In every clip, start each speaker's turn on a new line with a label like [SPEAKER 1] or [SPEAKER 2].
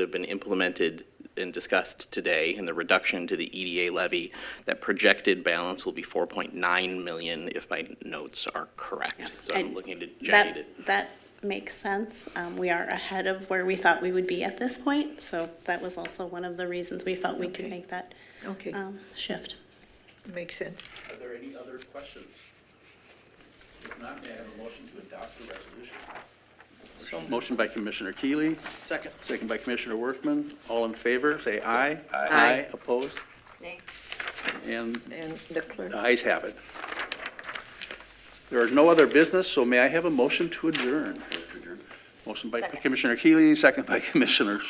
[SPEAKER 1] that have been implemented and discussed today, and the reduction to the EDA levy, that projected balance will be 4.9 million if my notes are correct. So I'm
[SPEAKER 2] I-
[SPEAKER 1] looking to Jenny to,
[SPEAKER 2] That, that makes sense. Um, we are ahead of where we thought we would be at this point, so that was also one of the reasons we felt we could
[SPEAKER 3] Okay.
[SPEAKER 2] make that,
[SPEAKER 3] Okay,
[SPEAKER 2] um, shift.
[SPEAKER 3] makes sense.
[SPEAKER 4] Are there any other questions? If not, may I have a motion to adopt the resolution?
[SPEAKER 5] So, motion by Commissioner Keeley. Second. Second by Commissioner Workman. All in favor, say aye. Aye. Opposed? Nay. And
[SPEAKER 3] And the
[SPEAKER 5] the
[SPEAKER 3] clerk,
[SPEAKER 5] ayes have it. There is no other business, so may I have a motion to adjourn? Motion by Commissioner Keeley, second by Commissioner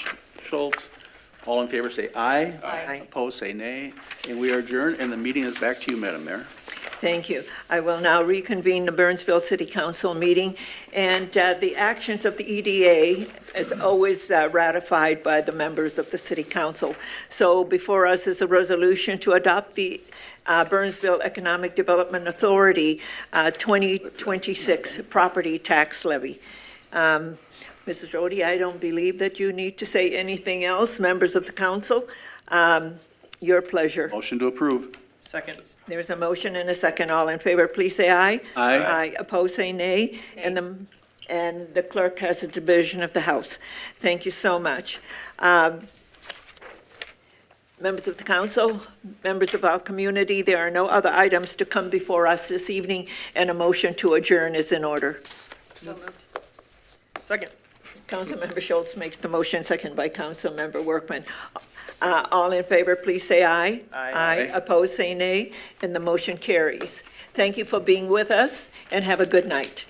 [SPEAKER 5] Schultz. All in favor, say aye.
[SPEAKER 3] Aye.
[SPEAKER 5] Opposed, say nay. And we are adjourned, and the meeting is back to you, Madam Mayor.
[SPEAKER 3] thank you. I will now reconvene the Burnsville City Council meeting, and uh, the actions of the EDA is always uh, ratified by the members of the city council. So before us is a resolution to adopt the uh, Burnsville Economic Development Authority uh, 2026 property tax levy. Um, Mrs. Rhodey, I don't believe that you need to say anything else, members of the council. Um, Your pleasure.
[SPEAKER 5] Motion to approve.
[SPEAKER 3] There's a motion and a second. All in favor, please say aye.
[SPEAKER 5] Aye.
[SPEAKER 3] Aye. Oppose, say nay. And the, and the clerk has a division of the House. Thank you so much. Um, Members of the council, members of our community, there are no other items to come before us this evening, and a motion to adjourn is in order.
[SPEAKER 6] So moved.
[SPEAKER 3] Councilmember Schultz makes the motion, second by Councilmember Workman. Uh, All in favor, please say aye. Aye. Opposed, say nay, and the motion carries. Thank you for being with us, and have a good night.